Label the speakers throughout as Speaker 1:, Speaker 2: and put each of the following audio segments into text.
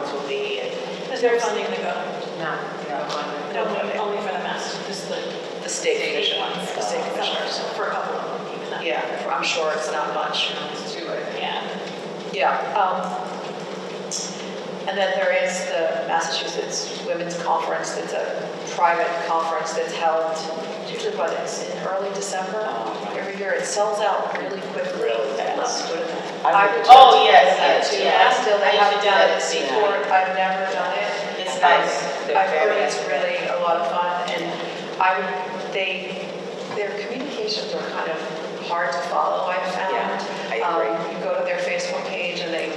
Speaker 1: Oh,
Speaker 2: Is their funding gonna go?
Speaker 1: Not, no,
Speaker 2: No, only for the master, just the
Speaker 3: The state commission, the state commissioners.
Speaker 2: for a couple of them, even that.
Speaker 3: Yeah, I'm sure it's not much.
Speaker 1: it's too late.
Speaker 2: Yeah.
Speaker 3: Yeah. um, And then there is the Massachusetts Women's Conference, that's a private conference that's held, usually what, it's in early December every year. It sells out really quickly.
Speaker 4: Really
Speaker 3: I love
Speaker 4: fast.
Speaker 3: doing that.
Speaker 1: I
Speaker 3: I
Speaker 1: would-
Speaker 3: would-
Speaker 1: Oh, yes, yes,
Speaker 3: Yeah,
Speaker 1: yes.
Speaker 3: Still,
Speaker 1: I
Speaker 3: I
Speaker 1: should
Speaker 3: haven't
Speaker 1: do
Speaker 3: done
Speaker 1: it.
Speaker 3: it before, I've never done it.
Speaker 1: It's
Speaker 3: Um,
Speaker 1: nice. They're
Speaker 3: I've heard
Speaker 1: very
Speaker 3: it's
Speaker 1: active.
Speaker 3: really a lot of fun, and I, would- they, their communications are kind of hard to follow, I've found.
Speaker 1: Yeah, I agree.
Speaker 3: Um, You go to their Facebook page and they,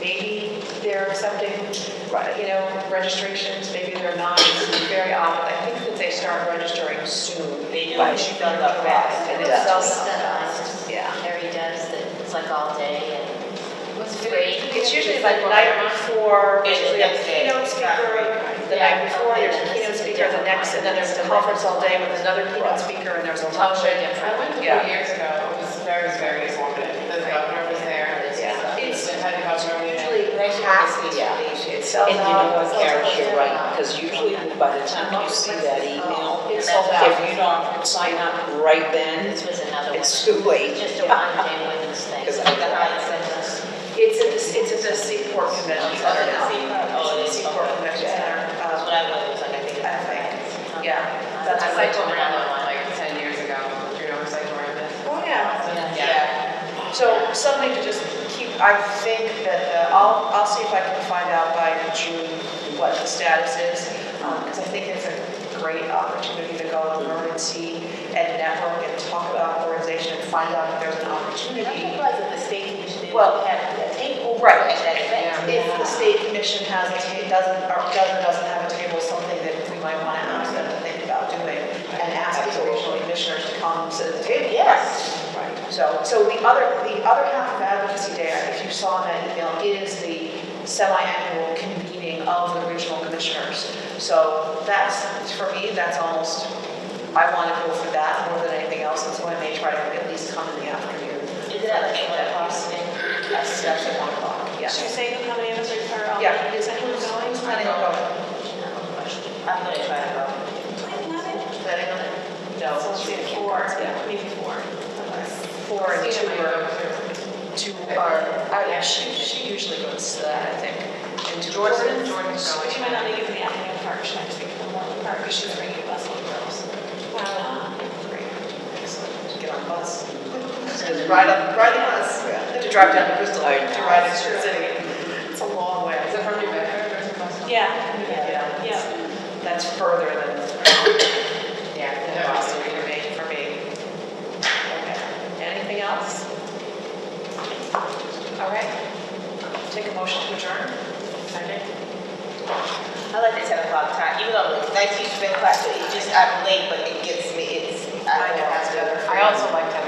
Speaker 3: maybe they're accepting, you know, registrations, maybe they're not, it's very odd. I think that they start registering soon.
Speaker 1: They do,
Speaker 3: Like
Speaker 1: it's
Speaker 3: June,
Speaker 1: done up
Speaker 3: July,
Speaker 1: fast.
Speaker 3: And
Speaker 5: It
Speaker 3: it
Speaker 5: was
Speaker 3: sells
Speaker 5: just done
Speaker 3: out
Speaker 5: last.
Speaker 3: fast, yeah.
Speaker 5: Harry does, that it's like all day and it's great.
Speaker 3: It's usually like the night before,
Speaker 1: It's
Speaker 3: usually a
Speaker 1: next day.
Speaker 3: keynote speaker, the
Speaker 5: Yeah.
Speaker 3: night before,
Speaker 5: Okay,
Speaker 3: there's a
Speaker 5: then
Speaker 3: keynote
Speaker 5: this is a
Speaker 3: speaker, the
Speaker 5: different
Speaker 3: next,
Speaker 5: one.
Speaker 3: and then there's a conference all day with another keynote speaker, and there's a lunch.
Speaker 5: Totally different.
Speaker 1: I went a couple
Speaker 3: Yeah.
Speaker 1: years ago. It was very, very informative. The governor was there. It was,
Speaker 3: Yeah.
Speaker 1: uh,
Speaker 3: It's
Speaker 1: they had a governor meeting.
Speaker 3: usually
Speaker 1: Nice
Speaker 3: packed.
Speaker 1: meeting.
Speaker 6: Yeah.
Speaker 3: It
Speaker 6: And
Speaker 3: sells
Speaker 6: you know
Speaker 3: out.
Speaker 6: what, Karen, you're right, because usually by the time you see that email,
Speaker 3: Oh, It's sold
Speaker 6: if
Speaker 3: out.
Speaker 6: you don't sign up right then,
Speaker 5: This was another one.
Speaker 6: it's too late.
Speaker 5: Just a one-day women's thing.
Speaker 6: 'Cause I-
Speaker 5: The Hyatt Centers.
Speaker 3: It's at the, it's at the Seaport Convention Center now.
Speaker 1: Oh, it is.
Speaker 3: It's at the Seaport Convention Center,
Speaker 1: That's what
Speaker 3: um,
Speaker 1: I was like, I think.
Speaker 3: I think, yeah. That's
Speaker 5: I
Speaker 3: what
Speaker 5: went
Speaker 3: I
Speaker 5: to
Speaker 3: told
Speaker 5: another one.
Speaker 1: Like 10 years ago, you know, it was like wearing this.
Speaker 3: Oh, yeah.
Speaker 1: Yeah.
Speaker 3: So something to just keep, I think that, uh, I'll, I'll see if I can find out by June what the status is, because I think it's a great opportunity to go and learn and see and network and talk about organization and find out if there's an opportunity.
Speaker 5: that the state commission
Speaker 3: didn't Well,
Speaker 5: have a table.
Speaker 3: right. at
Speaker 5: that
Speaker 3: If the state commission has, a ta- doesn't, or doesn't, doesn't have a table, something that we might want to ask them to think about doing and ask these regional commissioners to come to the table.
Speaker 5: Yes.
Speaker 3: So, so the other, the other half of advocacy day, if you saw in that email, is the semi-annual convening of the regional commissioners. So that's, for me, that's almost, I want to go for that more than anything else, and so I may try to at least come in the afternoon.
Speaker 5: Is it at eight o'clock?
Speaker 3: Yes, that's at one o'clock, yeah.
Speaker 2: So you're saying how many of us are, are on?
Speaker 3: Yeah.
Speaker 2: Is anyone going?
Speaker 3: I think I'll go.
Speaker 1: I'm gonna try to go.
Speaker 3: Is that it? No.
Speaker 2: So
Speaker 3: it's
Speaker 2: let's do
Speaker 3: three.
Speaker 2: four,
Speaker 3: Yeah.
Speaker 2: maybe four.
Speaker 3: Four and two are, two are, I- she, she usually goes to that, I think. And
Speaker 1: Jordan, Jordan's going.
Speaker 2: She might not make it for the afternoon part, she might just make it for the morning part, because she's bringing a bus of girls. Wow.
Speaker 3: Great. Excellent. Get on the bus. Just ride on, ride the bus. Have to drive down to Bristol
Speaker 6: I
Speaker 3: to
Speaker 6: know.
Speaker 3: ride into the city. It's a long way.
Speaker 1: Oh, Is it from New Bedford or is it from?
Speaker 2: Yeah,
Speaker 3: Yeah,
Speaker 2: yeah.
Speaker 3: that's further than,
Speaker 1: Yeah.
Speaker 3: than Boston for me, for me. Okay. Anything else? All right. Take a motion to adjourn.
Speaker 7: I like the ten o'clock time, even though it's nice to spend class, but it just, I'm late, but it gets me, it's, I don't know.
Speaker 3: better.
Speaker 1: I also like 10